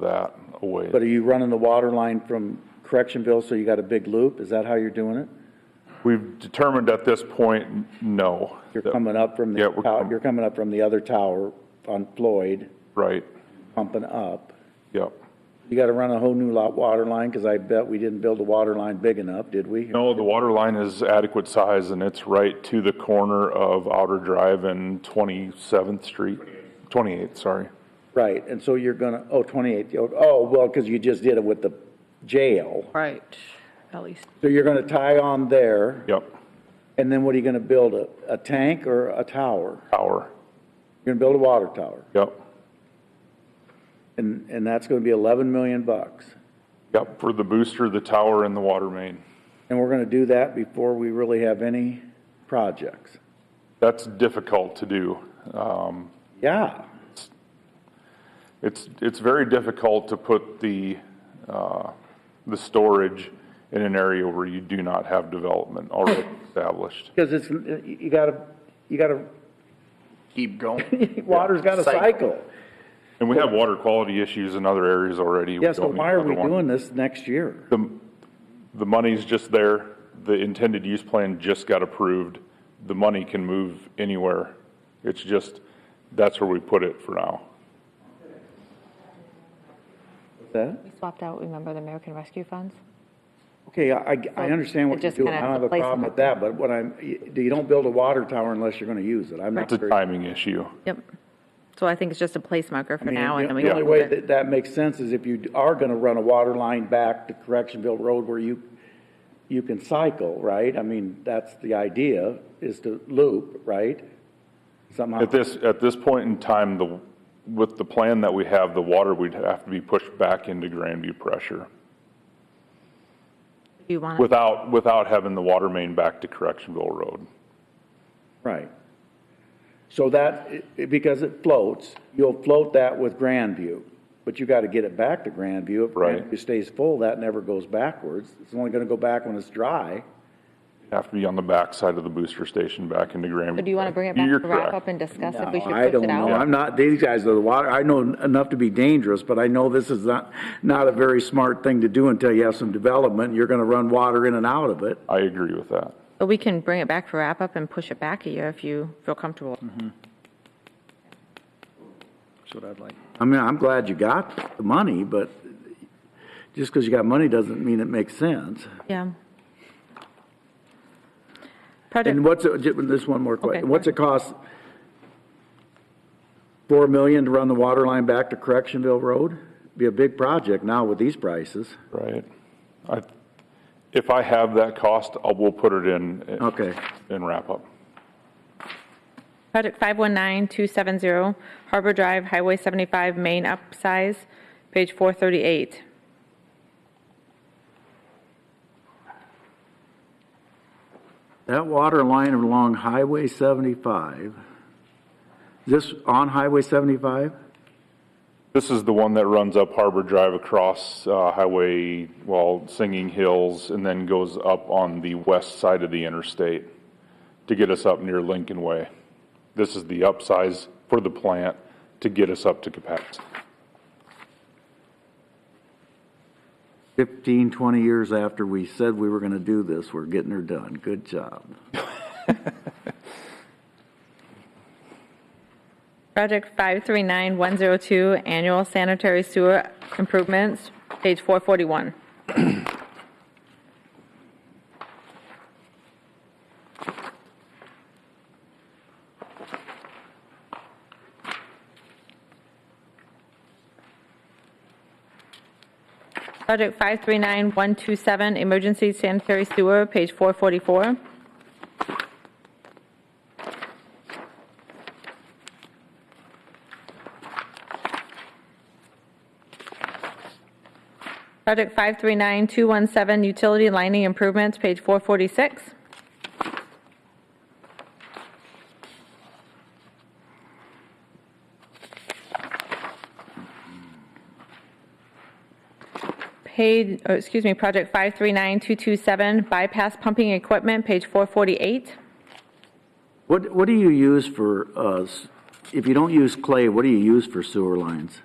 that away. But are you running the water line from Correctionville, so you got a big loop? Is that how you're doing it? We've determined at this point, n- no. You're coming up from Yeah, the, we're tow- com- you're coming up from the other tower on Floyd, Right, pumping up. yep. You gotta run a whole new lot water line, cause I bet we didn't build a water line big enough, did we? No, the water line is adequate size and it's right to the corner of Outer Drive and 27th Street. 28th, sorry. Right, and so you're gonna, oh, 28th. oh, oh, well, cause you just did it with the jail. Right, at least. So you're gonna tie on there, Yep, and then what are you gonna build, a, a tank or a tower? tower, You're gonna build a water tower, yep, and, and that's gonna be 11 million bucks. yep, for the booster, the tower and the water main. And we're gonna do that before we really have any projects. That's difficult to do. Um, Yeah, It's, it's very difficult to put the, uh, the storage in an area where you do not have development already established. cause it's, you gotta, you gotta, Keep going. water's gotta Cycle. cycle. And we have water quality issues in other areas already. Yeah, so don't need why are we another one. doing this next year? The, the money's just there, the intended use plan just got approved, the money can move anywhere. It's just, that's where we put it for now. That? We swapped out, remember, the American Rescue Funds? Okay, I, I understand what It you're just doing, I kinda don't have a plays problem them. with that, but what I'm, you you don't build a water tower unless you're gonna use it, I'm not It's a very. timing issue. Yep. So I think it's just a place marker for I mean, now, and then we The can only move way it. that that makes sense is if you are gonna run a water line back to Correctionville Road where you, you can cycle, right? I mean, that's the idea, is to loop, right? Somehow, At this, at this point in time, the, with the plan that we have, the water would have to be pushed back into Grandview pressure If You want, without, without having the water main back to Correctionville Road. right. So that, i- i- because it floats, you'll float that with Grandview, but you gotta get it back to Grandview. If Right. Grandview stays full, that never goes backwards, it's only gonna go back when it's dry. Have to be on the backside of the booster station back into Grandview. do you want to bring it back You're to wrap correct. up and discuss if we No, should I push don't it know. out? I'm not, these guys are the water, I know enough to be dangerous, but I know this is not, not a very smart thing to do until you have some development. You're gonna run water in and out of it. I agree with that. But we can bring it back for wrap up and push it back a year if you feel comfortable. Hmm. That's what I'd like. I mean, I'm glad you got the money, but just because you got money doesn't mean it makes sense. Yeah. Project, And what's, it- just one more Okay, question. go What's it cost? Four million to run the water line back to Correctionville Road? Be a big project now with these prices. Right. I, if I have that cost, I will put it in. Okay. And wrap up. project 519270, Harbor Drive, Highway 75, main upsize, page 438. That water line along Highway 75, this on Highway 75? This is the one that runs up Harbor Drive across uh, Highway, well, Singing Hills, and then goes up on the west side of the interstate to get us up near Lincoln Way. This is the upsize for the plant to get us up to capacity. 15, 20 years after we said we were going to do this, we're getting her done. Good job. Project 539102, annual sanitary sewer improvements, page 441. Project 539127, emergency sanitary sewer, page 444. Project 539217, utility lining improvements, page 446. Page, oh, excuse me, project 539227, bypass pumping equipment, page 448. What, what do you use for, uh, s- if you don't use clay, what do you use for sewer lines?